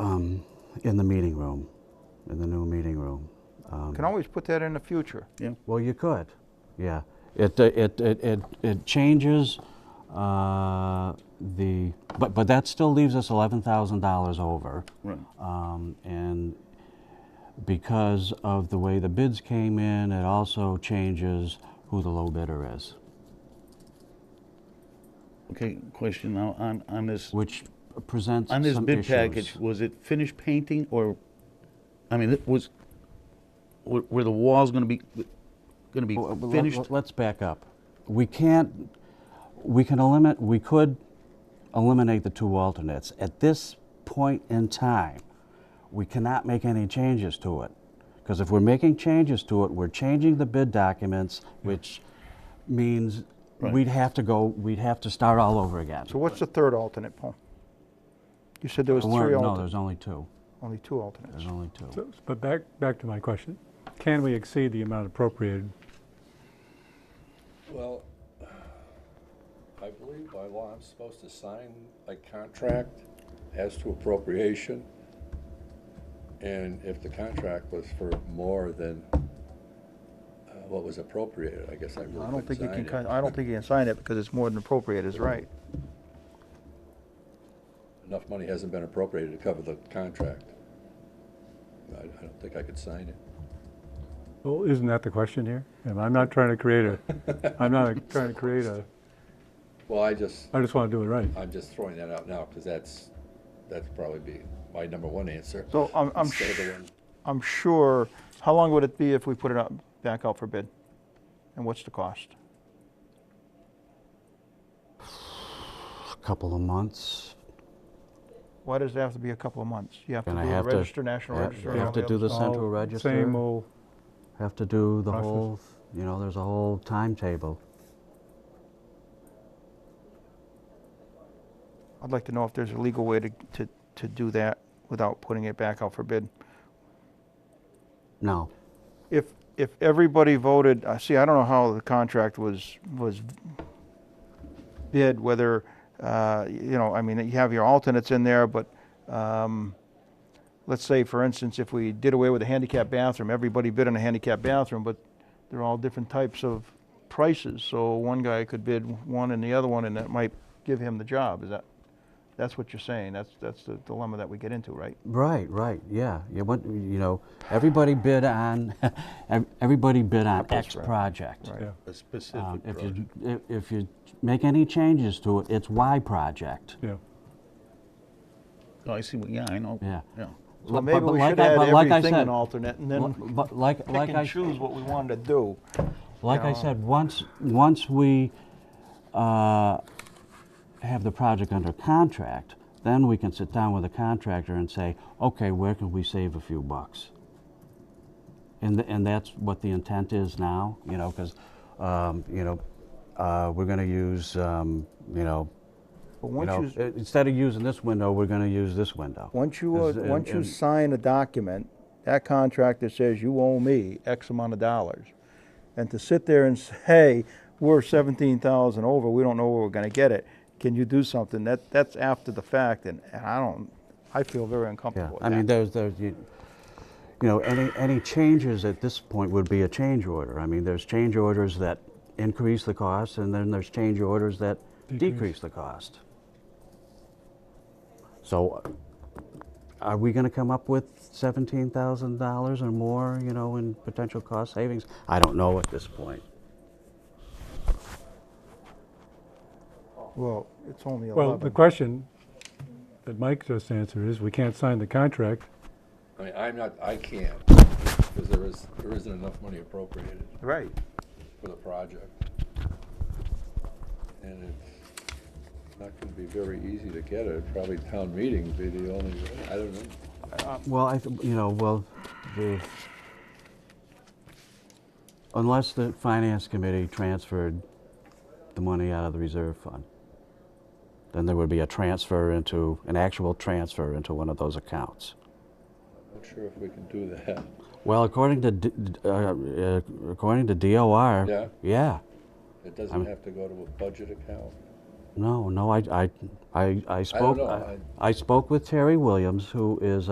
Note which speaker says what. Speaker 1: um, in the meeting room, in the new meeting room. Um,
Speaker 2: Can always put that in the future.
Speaker 3: Yeah.
Speaker 1: Well, you could, yeah. It, uh, it, it, it, it changes uh, the, but, but that still leaves us $11,000 over.
Speaker 3: Right.
Speaker 1: Um, And because of the way the bids came in, it also changes who the low bidder is,
Speaker 3: Okay, question now on, on this,
Speaker 1: which presents
Speaker 3: on this
Speaker 1: some
Speaker 3: bid
Speaker 1: issues.
Speaker 3: package, was it finished painting or, I mean, it was, were were the walls gonna be, gonna be
Speaker 1: Well, let-
Speaker 3: finished?
Speaker 1: let- Let's back up. We can't, we can eliminate, we could eliminate the two alternates. At this point in time, we cannot make any changes to it. Because if we're making changes to it, we're changing the bid documents, which means
Speaker 3: Right.
Speaker 1: we'd have to go, we'd have to start all over again.
Speaker 2: So what's the third alternate, Paul? You said there was
Speaker 1: There weren't-
Speaker 2: three
Speaker 1: No,
Speaker 2: alternates,
Speaker 1: there's only two.
Speaker 2: only two alternates.
Speaker 1: There's only two.
Speaker 4: So- But back, back to my question. Can we exceed the amount appropriated?
Speaker 5: Well, I believe by law I'm supposed to sign a contract as to appropriation. And if the contract was for more than uh, what was appropriated, I guess I really
Speaker 2: I don't think you
Speaker 5: couldn't
Speaker 2: can,
Speaker 5: sign
Speaker 2: kin-
Speaker 5: it.
Speaker 2: I don't think you can sign it because it's more than appropriate is right.
Speaker 5: Enough money hasn't been appropriated to cover the contract. I, I don't think I could sign it.
Speaker 4: Well, isn't that the question here? And I'm not trying to create a, I'm not trying to create a,
Speaker 5: Well, I just,
Speaker 4: I just want to do it right.
Speaker 5: I'm just throwing that out now, because that's, that's probably be my number one answer.
Speaker 2: So I'm, I'm,
Speaker 5: instead of the
Speaker 2: sh-
Speaker 5: one-
Speaker 2: I'm sure, how long would it be if we put it up, back out for bid? And what's the cost?
Speaker 1: A couple of months.
Speaker 2: Why does it have to be a couple of months? You have to do
Speaker 1: And I
Speaker 2: a
Speaker 1: have to-
Speaker 2: register, national
Speaker 1: yeah,
Speaker 2: register.
Speaker 1: you
Speaker 2: and
Speaker 1: have
Speaker 2: all
Speaker 1: to
Speaker 2: the
Speaker 1: do the
Speaker 2: other stuff.
Speaker 1: central
Speaker 4: All
Speaker 1: register.
Speaker 4: Same old,
Speaker 1: Have to do the
Speaker 4: Process.
Speaker 1: whole, you know, there's a whole timetable.
Speaker 2: I'd like to know if there's a legal way to, to, to do that without putting it back out for bid.
Speaker 1: No,
Speaker 2: If, if everybody voted, I see, I don't know how the contract was, was bid, whether, uh, you know, I mean, you have your alternates in there, but, um, let's say, for instance, if we did away with a handicap bathroom, everybody bid on a handicap bathroom, but they're all different types of prices, so one guy could bid one and the other one, and that might give him the job, is that, that's what you're saying, that's, that's the dilemma that we get into, right?
Speaker 1: Right, right, yeah. You want, you know, everybody bid on, ev- everybody bid on X project.
Speaker 4: yeah.
Speaker 3: A
Speaker 1: Um,
Speaker 3: specific
Speaker 1: If
Speaker 3: project.
Speaker 1: you, if- if you make any changes to it, it's Y project,
Speaker 4: Yeah.
Speaker 3: Oh, I see, what- yeah, I know.
Speaker 1: yeah.
Speaker 3: Yeah.
Speaker 1: Li-
Speaker 2: So
Speaker 1: but-
Speaker 2: maybe
Speaker 1: but
Speaker 2: we
Speaker 1: like
Speaker 2: should
Speaker 1: I-
Speaker 2: add
Speaker 1: but like I
Speaker 2: everything
Speaker 1: said-
Speaker 2: an alternate, and
Speaker 1: li-
Speaker 2: then
Speaker 1: But like,
Speaker 2: pick
Speaker 1: like I.
Speaker 2: and choose what we wanted to do.
Speaker 1: Like I said, once, once we uh, have the project under contract, then we can sit down with the contractor and say, okay, where can we save a few bucks? And, th- and that's what the intent is now, you know, because, you know, uh, we're going to use, um, you know,
Speaker 2: But
Speaker 1: you know,
Speaker 2: once you,
Speaker 1: i- instead of using this window, we're going to use this window.
Speaker 2: once you, uh,
Speaker 1: Is- and-
Speaker 2: once you
Speaker 1: and-
Speaker 2: sign a document, that contractor says you owe me X amount of dollars. And to sit there and say, hey, we're seventeen thousand over, we don't know where we're gonna get it, can you do something? That, that's after the fact, and, and I don't, I feel very
Speaker 1: Yeah,
Speaker 2: uncomfortable with
Speaker 1: I mean,
Speaker 2: that.
Speaker 1: there's, there's, you you know, any, any changes at this point would be a change order. I mean, there's change orders that increase the cost, and then there's change orders that
Speaker 4: Decrease.
Speaker 1: decrease the cost. So are we gonna come up with seventeen thousand dollars or more, you know, in potential cost savings? I don't know at this point.
Speaker 2: Well, it's only
Speaker 4: Well, the
Speaker 2: eleven.
Speaker 4: question that Mike just answered is, we can't sign the contract.
Speaker 5: I mean, I'm not, I can't, because there is, there isn't enough money appropriated
Speaker 2: Right.
Speaker 5: for the project. And it's not gonna be very easy to get it, probably town meeting would be the only, way. I don't know.
Speaker 1: Well, I, th- you know, well, the, unless the finance committee transferred the money out of the reserve fund, then there would be a transfer into, an actual transfer into one of those accounts.
Speaker 5: Not sure if we can do that.
Speaker 1: Well, according to, D- d- uh, uh, according to DOR.
Speaker 5: Yeah.
Speaker 1: Yeah,
Speaker 5: It doesn't have to go to a budget account.
Speaker 1: no, no, I, I, I, I spoke,
Speaker 5: know,
Speaker 1: I- I spoke with Terry Williams, who is